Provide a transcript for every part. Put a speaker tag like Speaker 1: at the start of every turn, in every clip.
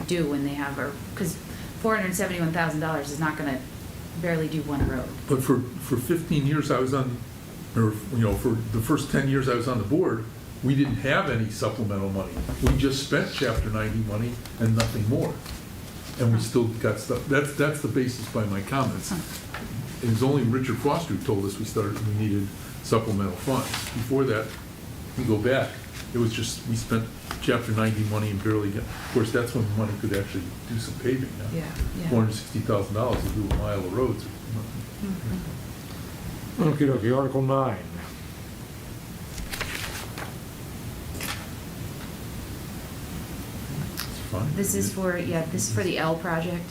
Speaker 1: do when they have, or, because four hundred and seventy-one thousand dollars is not gonna barely do one road.
Speaker 2: But for, for 15 years I was on, or, you know, for the first 10 years I was on the board, we didn't have any supplemental money. We just spent Chapter 90 money and nothing more. And we still got stuff, that's, that's the basis by my comments. It was only Richard Foster who told us we started, we needed supplemental funds. Before that, we go back, it was just, we spent Chapter 90 money and barely, got- of course, that's when money could actually do some paving now
Speaker 1: Yeah, yeah.
Speaker 2: four hundred and sixty thousand dollars to do a mile of roads.
Speaker 1: Mm-hmm.
Speaker 3: Okay, okay, Article nine.
Speaker 2: It's fine.
Speaker 1: This is for, yeah, this is for the L project.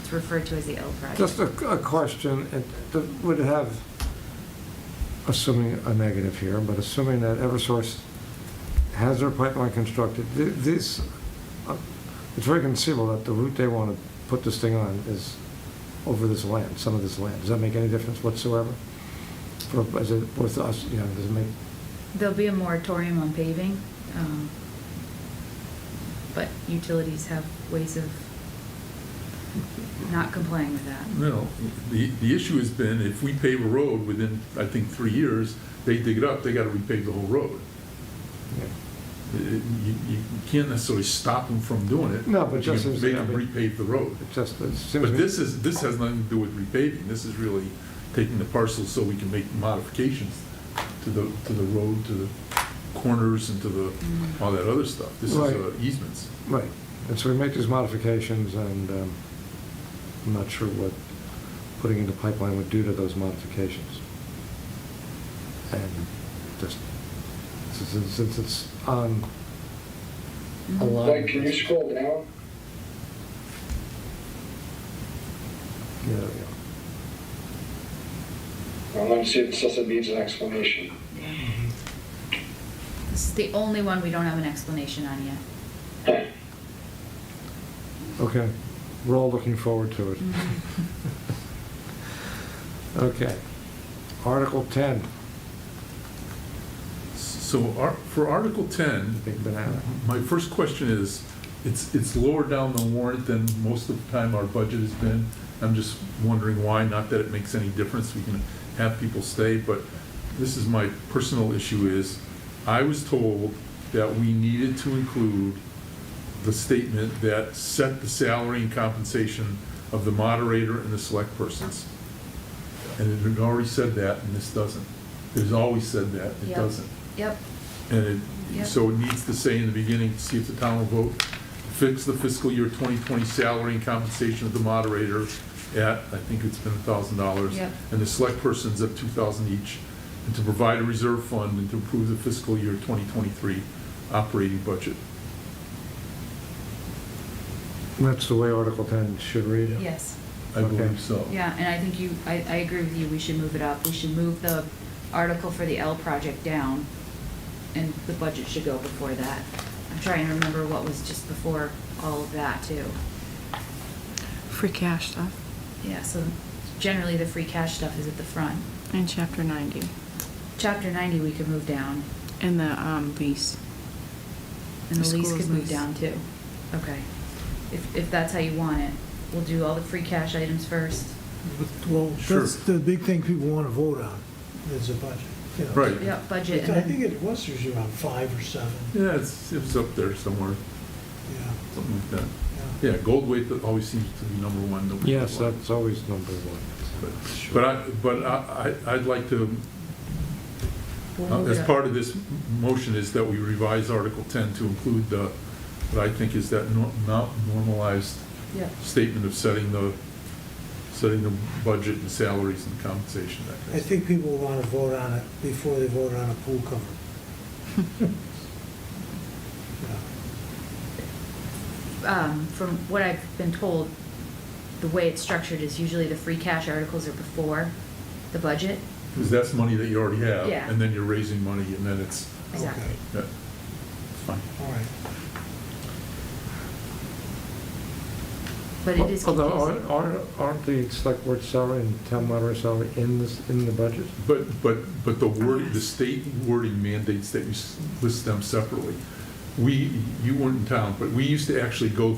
Speaker 1: It's referred to as the L project.
Speaker 3: Just a, a question, it it would have, assuming a negative here, but assuming that Eversource has their pipeline constructed, th- this, uh, it's very conceivable that the route they want to put this thing on is over this land, some of this land. Does that make any difference whatsoever? For, is it worth us, you know, does it make,
Speaker 1: There'll be a moratorium on paving, um, but utilities have ways of not complying with that.
Speaker 2: No, the, the issue has been if we pave a road within, I think, three years, they dig it up, they gotta repave the whole road.
Speaker 3: yeah.
Speaker 2: It- it- You, you can't necessarily stop them from doing it.
Speaker 3: No, but
Speaker 2: you
Speaker 3: just
Speaker 2: can
Speaker 3: as-
Speaker 2: Make them repave the road.
Speaker 3: it just, it seems. to
Speaker 2: But
Speaker 3: me-
Speaker 2: this is, this has nothing to do with repaving, this is really taking the parcels so we can make modifications to the, to the road, to the corners and to the,
Speaker 1: Mm.
Speaker 2: all that other stuff. This is
Speaker 3: Right.
Speaker 2: uh, easements.
Speaker 3: Right, and so we make these modifications, and um, I'm not sure what putting in the pipeline would do to those modifications. And just, since since it's on a
Speaker 1: Mhm.
Speaker 3: line...
Speaker 4: Mike, can you scroll down?
Speaker 3: Yeah, there we go.
Speaker 4: I want to see if it says it needs an explanation.
Speaker 2: Mm-hmm.
Speaker 1: This is the only one we don't have an explanation on yet.
Speaker 3: Okay, we're all looking forward to it. Okay, Article 10,
Speaker 2: So ar- for Article 10,
Speaker 3: big banana.
Speaker 2: my first question is, it's, it's lower down the warrant than most of the time our budget has been. I'm just wondering why, not that it makes any difference, we can have people stay, but this is my personal issue is, I was told that we needed to include the statement that set the salary and compensation of the moderator and the select persons. And it had already said that, and this doesn't. It has always said that, it
Speaker 1: Yep.
Speaker 2: doesn't.
Speaker 1: Yep,
Speaker 2: And it,
Speaker 1: Yep.
Speaker 2: so it needs to say in the beginning, see if the town will vote, fix the fiscal year 2020 salary and compensation of the moderator at, I think it's been $1,000.
Speaker 1: Yep.
Speaker 2: And the select persons at 2,000 each, and to provide a reserve fund and to approve the fiscal year 2023 operating budget.
Speaker 3: That's the way Article 10 should read.
Speaker 1: yes.
Speaker 2: I
Speaker 3: Okay.
Speaker 2: believe so.
Speaker 1: Yeah, and I think you, I, I agree with you, we should move it up. We should move the article for the L project down, and the budget should go before that. I'm trying to remember what was just before all of that, too.
Speaker 5: Free cash stuff
Speaker 1: Yeah, so generally, the free cash stuff is at the front.
Speaker 5: in chapter 90
Speaker 1: Chapter 90, we could move down,
Speaker 5: and the um, lease.
Speaker 1: and the
Speaker 5: The
Speaker 1: lease
Speaker 5: school's
Speaker 1: could move
Speaker 5: lease.
Speaker 1: down, too. Okay. If, if that's how you want it. We'll do all the free cash items first.
Speaker 6: Well,
Speaker 2: Sure.
Speaker 6: that's the big thing people want to vote on, is the budget. you know.
Speaker 2: Right.
Speaker 1: Yeah, budget. and
Speaker 6: I
Speaker 1: then-
Speaker 6: think it was usually around five or seven, yeah,
Speaker 2: Yeah, it's, it's up there somewhere,
Speaker 6: yeah.
Speaker 2: something like that. Yeah, gold weight always seems to be number one. number
Speaker 3: Yes,
Speaker 2: one.
Speaker 3: that's always number one.
Speaker 2: But- But I, but I, I- I'd like to
Speaker 1: we'll
Speaker 2: Uh,
Speaker 1: move
Speaker 2: As
Speaker 1: it up.
Speaker 2: part of this m- motion is that we revise Article 10 to include the, what I think is that nor- not normalized
Speaker 1: Yeah.
Speaker 2: statement of setting the, setting the budget and salaries and compensation, that kind
Speaker 6: I
Speaker 2: of stuff.
Speaker 6: think people want to vote on it before they vote on a pool cover. Yeah.
Speaker 1: um, from what I've been told, the way it's structured is usually the free cash articles are before the budget.
Speaker 2: Because that's money that you already have.
Speaker 1: Yeah.
Speaker 2: And then you're raising money, and then it's,
Speaker 1: Exactly.
Speaker 6: Okay,
Speaker 2: yeah, fine.
Speaker 6: All right.
Speaker 1: But it is
Speaker 3: Although,
Speaker 1: confusing.
Speaker 3: aren't- aren't, aren't the select board salary and town moderator salary in this, in the budget?
Speaker 2: But, but, but the word, the state wording mandates that you s- list them separately. We, you weren't in town, but we used to actually go